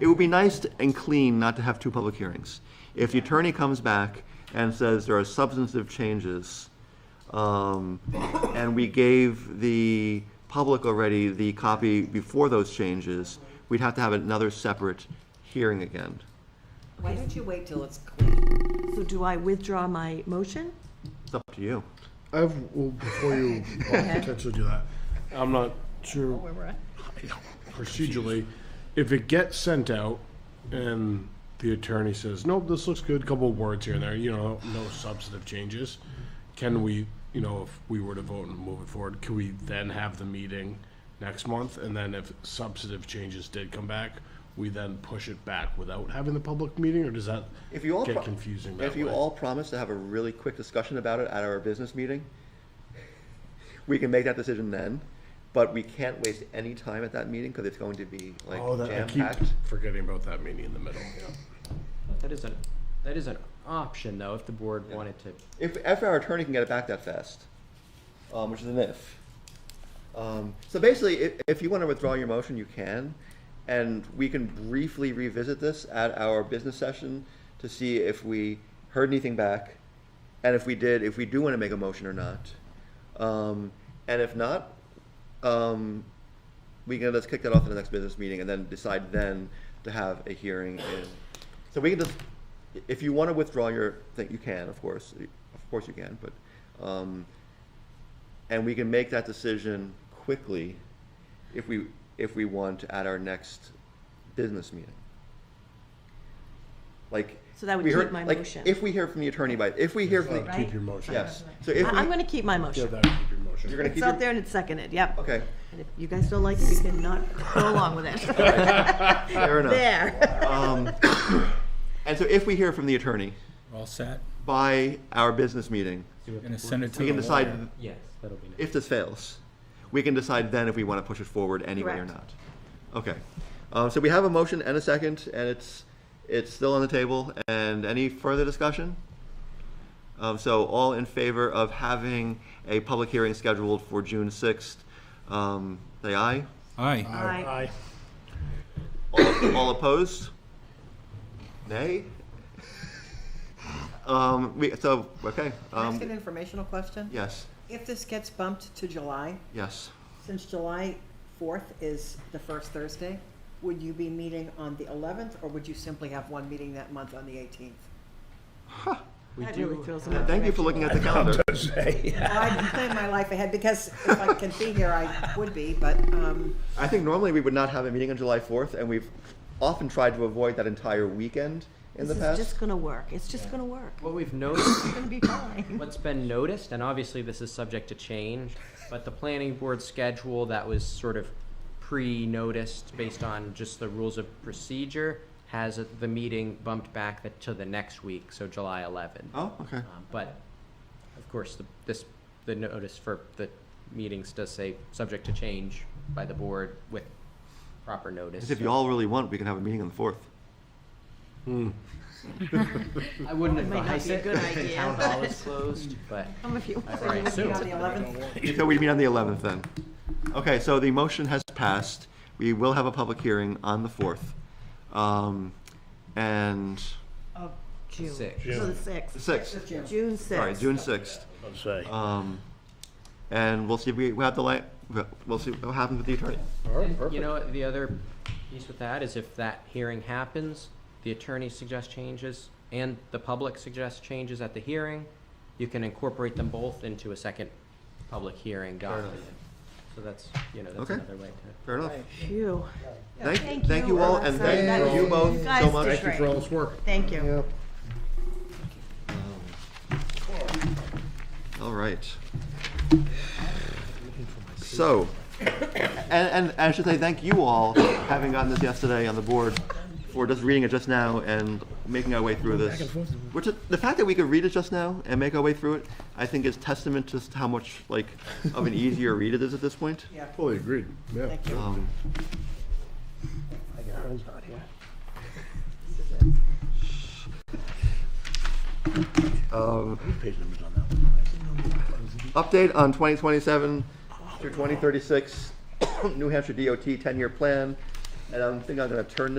It would be nice to- and clean not to have two public hearings. If the attorney comes back and says there are substantive changes, um, and we gave the public already the copy before those changes, we'd have to have another separate hearing again. Why don't you wait till it's clean? So do I withdraw my motion? It's up to you. I have, well, before you uh, potentially do that, I'm not sure procedurally, if it gets sent out and the attorney says, nope, this looks good, couple of words here and there, you know, no substantive changes, can we, you know, if we were to vote and move it forward, can we then have the meeting next month? And then if substantive changes did come back, we then push it back without having the public meeting, or does that If you all. get pro- confusing that If you way? all promise to have a really quick discussion about it at our business meeting, we can make that decision then, but we can't waste any time at that meeting because it's going to be like Oh, that, I keep jam-packed. forgetting about that meeting in the middle, yeah. That is an, that is an option, though, if the board wanted to. If, if our attorney can get it back that fast, um, which is an if. Um, so basically, if, if you want to withdraw your motion, you can, and we can briefly revisit this at our business session to see if we heard anything back, and if we did, if we do want to make a motion or not. Um, and if not, um, we can just kick that off in the next business meeting and then decide then to have a hearing. in- So we can just, if you want to withdraw your thing, you can, of course, of course you can, but, um, and we can make that decision quickly if we, if we want at our next business meeting. Like. So that would we keep heard- my like, motion. If we hear from the attorney by, if we hear from, the- Right. Keep your motion. yes, so I- if we, I'm going to keep my Yeah, motion. that would be your motion. you're gonna keep It's your. out there and it's seconded, yep. Okay, And if you guys don't like it, you can not go along with it. fair enough. There. Um, and so if we hear from the attorney All set, by our business meeting, gonna send it to the we can decide Yes, that'll be nice. if this fails. We can decide then if we want to push it forward anyway or Correct. not. Okay. Um, so we have a motion and a second, and it's it's still on the table. And any further discussion? Um, so all in favor of having a public hearing scheduled for June sixth, um, say aye. Aye, Aye. All, all opposed? Nay? Um, we, so, okay, Can I ask an um, informational question? yes, If this gets bumped to July, yes. since July 4th is the first Thursday, would you be meeting on the 11th, or would you simply have one meeting that month on the 18th? We That do really throws them have- off. Thank you for looking at the calendar. Well, I plan my life ahead, because if I can be here, I would be, but, um, I think normally we would not have a meeting on July fourth, and we've often tried to avoid that entire weekend in the This is past. just going to work. It's just going to work. What we've noticed, It's going to be fine. what's been noticed, and obviously this is subject to change, but the planning board schedule that was sort of pre-noticed based on just the rules of procedure has the meeting bumped back the- to the next week, so July 11th. Oh, okay. Um, But, of course, the, this, the notice for the meetings does say, subject to change by the board with proper notice. Because if you all really want, we can have a meeting on the fourth. I wouldn't might not advise be a it. good The idea, Town hall is closed, but Some of you. I so you would would be assume. on the 11th? So we meet on the eleventh then. Okay, so the motion has passed. We will have a public hearing on the fourth. Um, and, Of June. Six. So the 6th. sixth, June 6th. sorry, June sixth. I'd say. Um, and we'll see if we, we have the light, we'll see what happens with the attorney. And, You know, the other piece with that is if that hearing happens, the attorney suggests changes and the public suggests changes at the hearing, you can incorporate them both into a second public hearing document. So that's, you know, that's Okay. another way to. Fair enough. Phew. Thank, Thank thank you, you all, and Alexa. thank That- you both you so guys much. did great. For all this work. Thank you. All right. So, and, and I should say thank you all, having gotten this yesterday on the board, for just reading it just now and making our way through this. Which, is- the fact that we could read it just now and make our way through it, I think is testament to just how much, like, of an easier read it is at this point. Yeah, Fully agreed, yeah. thank you. Um, Um, Update on 2027 through 2036 New Hampshire DOT 10-year plan, and I am think I'm going to turn this.